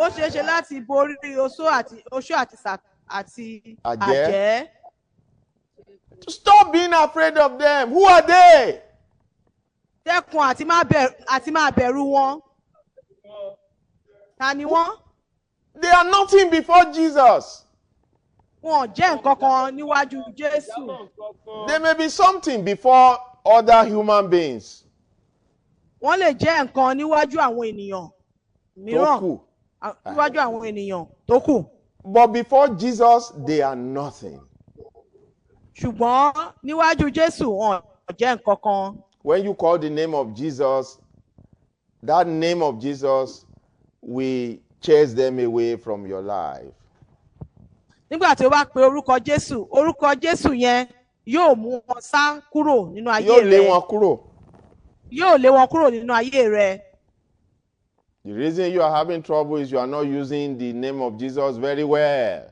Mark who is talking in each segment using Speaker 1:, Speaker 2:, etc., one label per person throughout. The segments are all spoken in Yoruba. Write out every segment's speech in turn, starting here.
Speaker 1: ó ṣeé ṣe láti borí oṣó àti oṣó àti sà- àti
Speaker 2: Àjẹ́.
Speaker 1: àjẹ́.
Speaker 2: Stop being afraid of them. Who are they?
Speaker 1: dẹ́kun àti máa bẹ̀rù àti máa bẹ̀rù wọn. ta ni wọ́n?
Speaker 2: They are nothing before Jesus.
Speaker 1: wọn ò jẹ́ nǹkan kan níwájú jésù.
Speaker 2: They may be something before other human beings.
Speaker 1: wọ́n lè jẹ́ nǹkan níwájú àwọn ènìyàn
Speaker 2: tó
Speaker 1: mìíràn
Speaker 2: kù.
Speaker 1: à- níwájú àwọn ènìyàn tó kù.
Speaker 2: But before Jesus, they are nothing.
Speaker 1: ṣùgbọ́n níwájú jésù wọn ò jẹ́ nǹkan kan.
Speaker 2: When you call the name of Jesus, that name of Jesus will chase them away from your life.
Speaker 1: nígbà tí o bá pe orúkọ jésù orúkọ jésù yẹn yóò mú wọn sá kúrò nínú ayé
Speaker 2: Yóò
Speaker 1: rẹ
Speaker 2: lé wọn kúrò.
Speaker 1: yóò lé wọn kúrò nínú ayé rẹ.
Speaker 2: The reason you are having trouble is you are not using the name of Jesus very well.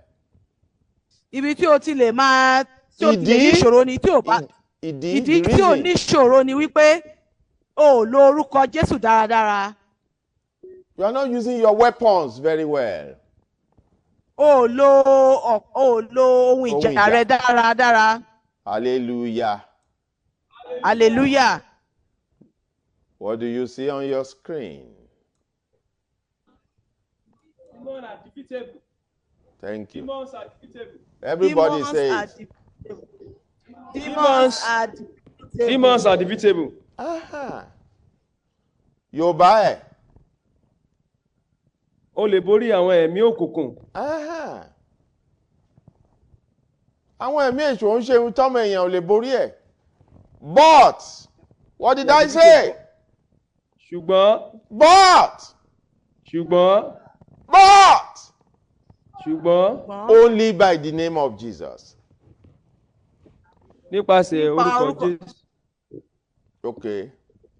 Speaker 1: ibi tí o ti lè máa tí o ti lè ní
Speaker 2: Ìdí- Mm.
Speaker 1: ìṣòro ni tí o bá
Speaker 2: Ìdí
Speaker 1: Oh, ìdí
Speaker 2: the
Speaker 1: tí o
Speaker 2: reason
Speaker 1: ní ìṣòro ni wípé o ò lo orúkọ jésù dáradára
Speaker 2: you are not using your weapons very well.
Speaker 1: o ò lo ọ̀- o ò lo ohun
Speaker 2: Ohun
Speaker 1: ìjà
Speaker 2: ìjà.
Speaker 1: rẹ dáradára
Speaker 2: Hallelujah.
Speaker 1: hallelujah
Speaker 2: What do you see on your screen?
Speaker 3: Demons are defeatable.
Speaker 2: Thank you.
Speaker 3: Demons are defeatable.
Speaker 2: Everybody
Speaker 1: Demons
Speaker 2: say
Speaker 1: are
Speaker 2: it.
Speaker 1: defeatable.
Speaker 3: Demons-
Speaker 1: demons are defeatable.
Speaker 3: Demons are defeatable.
Speaker 2: Aha. Yorùbá ẹ̀.
Speaker 3: O lè borí àwọn ẹ̀mí òkùnkùn.
Speaker 2: Aha. Àwọn ẹ̀mí èṣù ń ṣe ohun tọ́mọ èèyàn ò lè borí ẹ̀. But what did I say?
Speaker 3: Ṣùgbọ́n
Speaker 2: But
Speaker 3: ṣùgbọ́n
Speaker 2: but
Speaker 3: ṣùgbọ́n
Speaker 1: Ṣùgbọ́n
Speaker 2: only by the name of Jesus.
Speaker 3: nípasẹ̀
Speaker 1: Nípa
Speaker 3: orúkọ
Speaker 1: orúkọ-
Speaker 3: Jésù.
Speaker 2: Okay.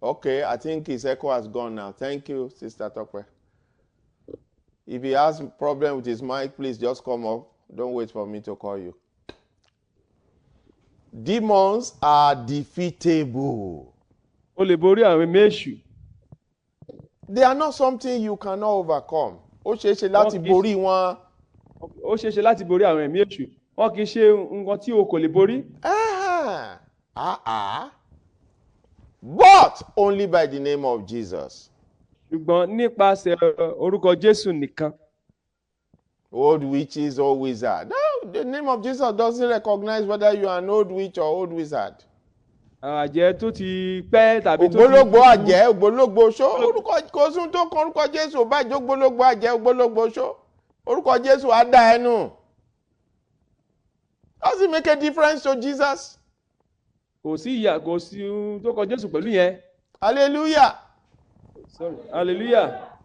Speaker 2: Okay. I think his echo has gone now. Thank you, Sister Tokwe. If he has problem with his mic, please just come up. Don't wait for me to call you. Demons are defeatable.
Speaker 3: O lè borí àwọn ẹ̀mí èṣù.
Speaker 2: They are not something you cannot overcome. Ó ṣeé ṣe láti
Speaker 3: kì í
Speaker 2: borí wọn.
Speaker 3: Ó ṣeé ṣe láti borí àwọn ẹ̀mí èṣù. Wọ́n kì í ṣe nǹkan tí o kò lè borí.
Speaker 2: Ah, ah, ah. But only by the name of Jesus.
Speaker 3: Ṣùgbọ́n nípasẹ̀ uh, orúkọ Jésù nìkan.
Speaker 2: old witches or wizard. No, the name of Jesus doesn't recognize whether you are an old witch or old wizard.
Speaker 3: Àwọn àjẹ́ tó ti pẹ́ tàbí tó ti.
Speaker 2: ògbólógbò àjẹ́ ògbólógbò ṣó orúkọ kò sún tó kan orúkọ Jésù báyìí ògbólógbò àjẹ́ ògbólógbò ṣó orúkọ Jésù á dá ẹnu. Does it make a difference to Jesus?
Speaker 3: Kò sí ìyà kò sí ohun tó kọ Jésù pẹ̀lú yẹn.
Speaker 2: Hallelujah.
Speaker 3: Sorry. Hallelujah.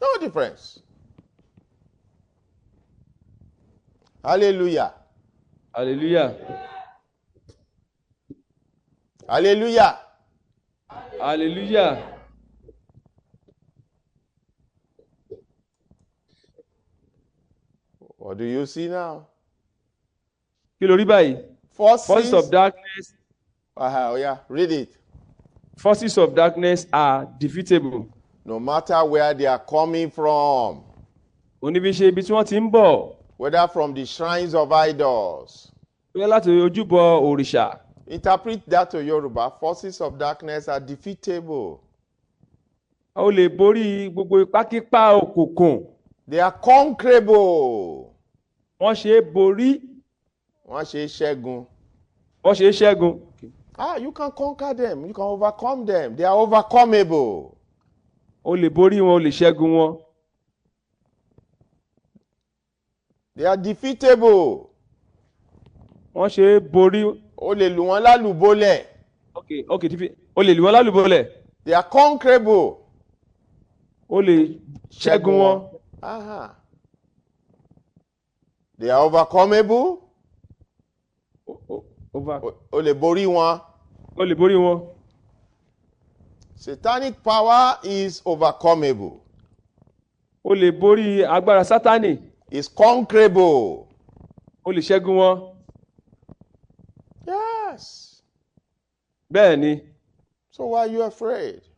Speaker 2: No difference. Hallelujah.
Speaker 3: Hallelujah.
Speaker 2: Hallelujah.
Speaker 3: Hallelujah.
Speaker 2: What do you see now?
Speaker 3: Kí ló rí báyìí?
Speaker 2: Forces.
Speaker 3: Forces of darkness
Speaker 2: Uh, yeah, read it.
Speaker 3: forces of darkness are defeatable.
Speaker 2: no matter where they are coming from,
Speaker 3: oníbiṣe ibi tí wọ́n ti ń bọ̀
Speaker 2: whether from the shrines of idols.
Speaker 3: bóyá láti ojúbọ òrìṣà
Speaker 2: Interpret that to Yoruba. Forces of darkness are defeatable.
Speaker 3: o lè borí gbogbo ipákípá òkùnkùn
Speaker 2: They are conquerable.
Speaker 3: wọ́n ṣe é borí
Speaker 2: Wọ́n ṣe é ṣẹ́gun.
Speaker 3: wọ́n ṣe é ṣẹ́gun
Speaker 2: Ah, you can conquer them. You can overcome them. They are overcomable.
Speaker 3: o lè borí wọn o lè ṣẹ́gun wọn
Speaker 2: They are defeatable.
Speaker 3: wọ́n ṣe é borí
Speaker 2: O lè lù wọ́n lálùbọ́lẹ̀.
Speaker 3: ok ok defeat o lè lù wọ́n lálùbọ́lẹ̀
Speaker 2: They are conquerable.
Speaker 3: o lè ṣẹ́gun wọn
Speaker 2: Aha. They are overcomable.
Speaker 3: O- o- over-
Speaker 2: O- o lè borí wọn.
Speaker 3: o lè borí wọn
Speaker 2: Satanic power is overcomable,
Speaker 3: o lè borí agbára sátánì
Speaker 2: is conquerable.
Speaker 3: o lè ṣẹ́gun wọn
Speaker 2: Yes.
Speaker 3: bẹ́ẹ̀ ni
Speaker 2: So why are you afraid?